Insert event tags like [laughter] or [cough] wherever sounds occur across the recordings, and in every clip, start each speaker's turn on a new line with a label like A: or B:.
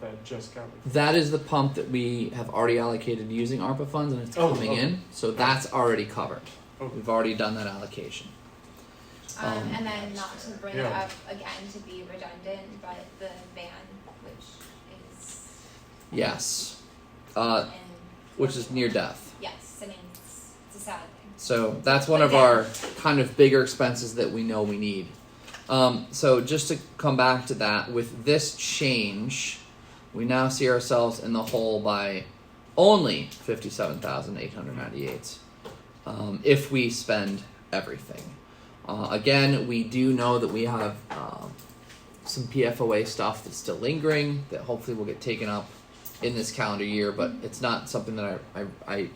A: that just got.
B: That is the pump that we have already allocated using ARPA funds and it's
A: Oh,
B: coming
A: oh.
B: in. So that's already covered.
A: Oh.
B: We've already done that allocation.
C: Um,
B: Um,
C: and then not to bring
A: yeah.
C: it up again to be redundant, but the van, which is
B: Yes. Uh,
C: in,
B: which is near death.
C: yes, I mean, it's, it's a sad thing.
B: So that's one of our kind of bigger expenses that we know we need. Um, so just to come back to that, with this change, we now see ourselves in the hole by only fifty-seven thousand eight hundred ninety-eight. Um, if we spend everything, uh, again, we do know that we have uh, some PFOA stuff that's still lingering that hopefully will get taken up in this calendar year, but it's not something that I, I, I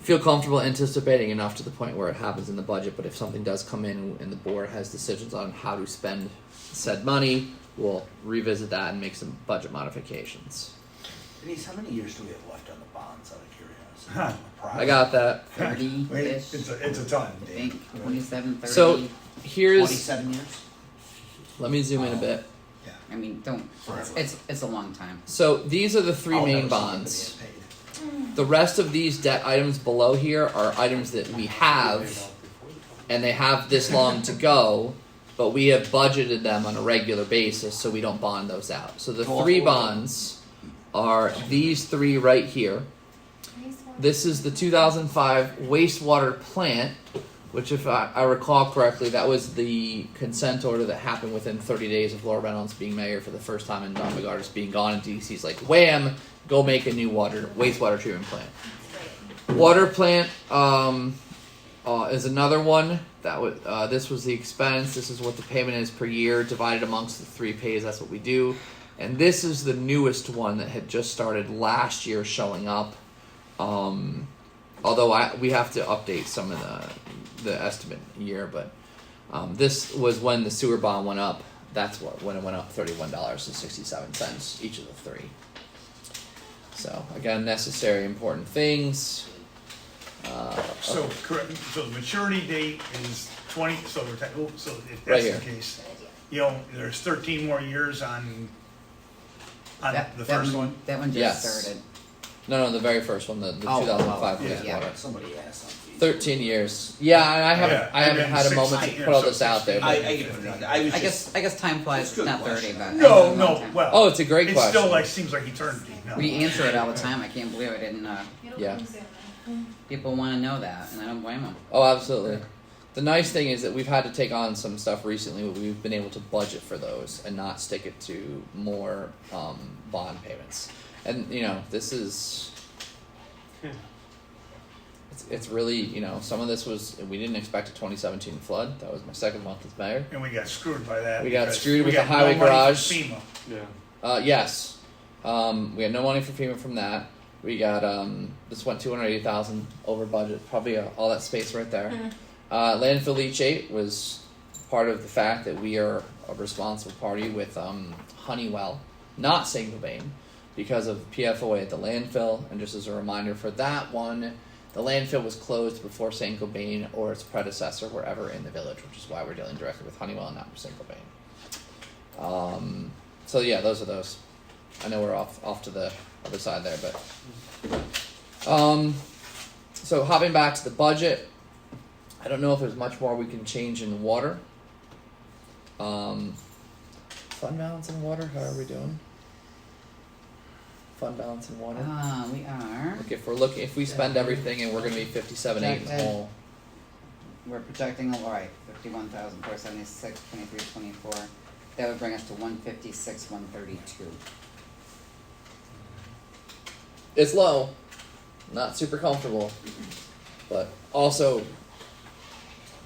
B: feel comfortable anticipating enough to the point where it happens in the budget. But if something does come in and the board has decisions on how to spend said money, we'll revisit that and make some budget modifications.
D: Denise, how many years do we have left on the bonds out of curiosity?
B: I
D: [laughs]
B: got that.
E: Thirty-ish.
D: Wait, It's a, it's a ton,
E: I
D: Dan.
E: think twenty-seven, thirty.
B: So here's.
D: Twenty-seven years?
B: Let me zoom in a bit.
E: I mean, don't. It's,
D: Forever.
E: it's it's a long time.
B: So these are the three
D: I'll
B: main
D: never see anybody
B: bonds.
D: get paid.
B: The rest of these debt items below here are items that we have, and they have this long to go, but we have budgeted them on a regular basis, so we don't bond those out. So the three bonds are these three right here. This is the 2005 wastewater plant, which, if I, I recall correctly, that was the consent order that happened within 30 days of Laura Reynolds being mayor for the first time and Don McGardis being gone. And DC's like, wham, go make a new water wastewater treatment plant.
C: Right.
B: Water plant um, uh, is another one. That was uh, this was the expense. This is what the payment is per year divided amongst the three pays. That's what we do. And this is the newest one that had just started last year showing up. Um, although I we have to update some of the the estimate year, but um, this was when the sewer bond went up. That's what when it went up thirty one dollars and sixty seven cents each of the three. So again, necessary important things. Uh,
F: So, correct, so the maturity date is twenty, so we're, ta- oh, so if
B: Right
F: that's the
B: here.
F: case,
C: Good idea.
F: you know, there's thirteen more years on, on
E: That,
F: Uh, the
E: that
F: first one.
E: That one just
B: Yes.
E: started.
B: no, no, the very first one, the, the
E: Oh,
B: 2005
F: yeah,
B: wastewater.
E: yeah.
D: Somebody asked something.
B: Thirteen years. Yeah, and I haven't,
F: Yeah,
B: I haven't
F: and
B: had a
F: then
B: moment to
F: 16,
B: put all
F: so
B: this out there.
F: 16.
B: but-
D: I, I get it, I was
E: I
D: just,
E: guess I guess time
D: It's a
E: flies.
D: good
E: It's not
D: question.
E: thirty, but that was
F: No,
E: a long
F: no,
E: time.
F: well.
B: Oh, it's a great
F: It
B: question.
F: still like, seems like eternity, no.
E: We answer it all the time. I can't believe I didn't. Uh,
C: It'll
B: Yeah.
C: come soon. [laughs]
E: people want to know that, and I don't blame them.
B: Oh, absolutely. The nice thing is that we've had to take on some stuff recently, but we've been able to budget for those and not stick it to more um, bond payments. And you know, this is.
F: Hmm.
A: Yeah.
B: It's, it's really you know some of this was we didn't expect a 2017 flood that was my second month as mayor
F: And we got screwed by that.
B: We got
F: because
B: screwed
F: we
B: with the
F: got no
B: highway
F: money for
B: garage.
F: FEMA.
A: Yeah.
B: Uh, yes. Um, we had no money for FEMA from that. We got um, this went two hundred eighty thousand over budget. Probably uh, all that space right there. Uh, landfill leachate was part of the fact that we are a responsible party with um, Honeywell, not Saint-Gobain, because of PFOA at the landfill. And just as a reminder for that one, the landfill was closed before Saint-Gobain or its predecessor were ever in the village, which is why we're dealing directly with Honeywell and not with Saint-Gobain. Um, so yeah, those are those. I know we're off off to the other side there, but um, so hopping back to the budget, I don't know if there's much more we can change in water. Um, fund balance in water. How are we doing? Fund balance in water.
E: Ah, we are.
B: Look, if we're looking, if we spend everything and we're gonna be fifty-seven eight in the hole,
E: We're projecting a right fifty-one thousand four seventy-six twenty-three twenty-four. That would bring us to one fifty-six one thirty-two.
B: it's low, not super comfortable, but also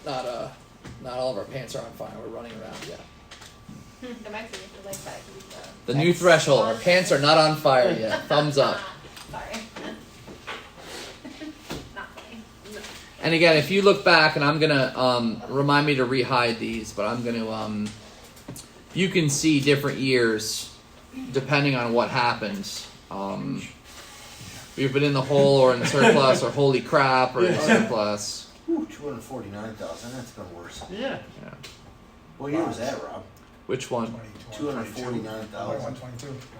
B: not uh not all of our pants are on fire. We're running around yet.
C: That might be if you like that. you could, uh,
B: The new
E: That's-
B: threshold. Our pants are not on fire yet. Thumbs up.
C: Sorry. [laughs] Not funny. No.
B: And again, if you look back, and I'm gonna um, remind me to rehide these, but I'm gonna um, you can see different years depending on what happens. Um, we've been in the hole or in surplus or holy crap or in surplus.
D: ooh, two hundred and forty-nine thousand, that's been worse.
A: Yeah.
B: Yeah.
D: What year was that, Rob?
B: Which one?
F: Twenty-
D: Two hundred and forty-nine thousand.
F: One twenty-two.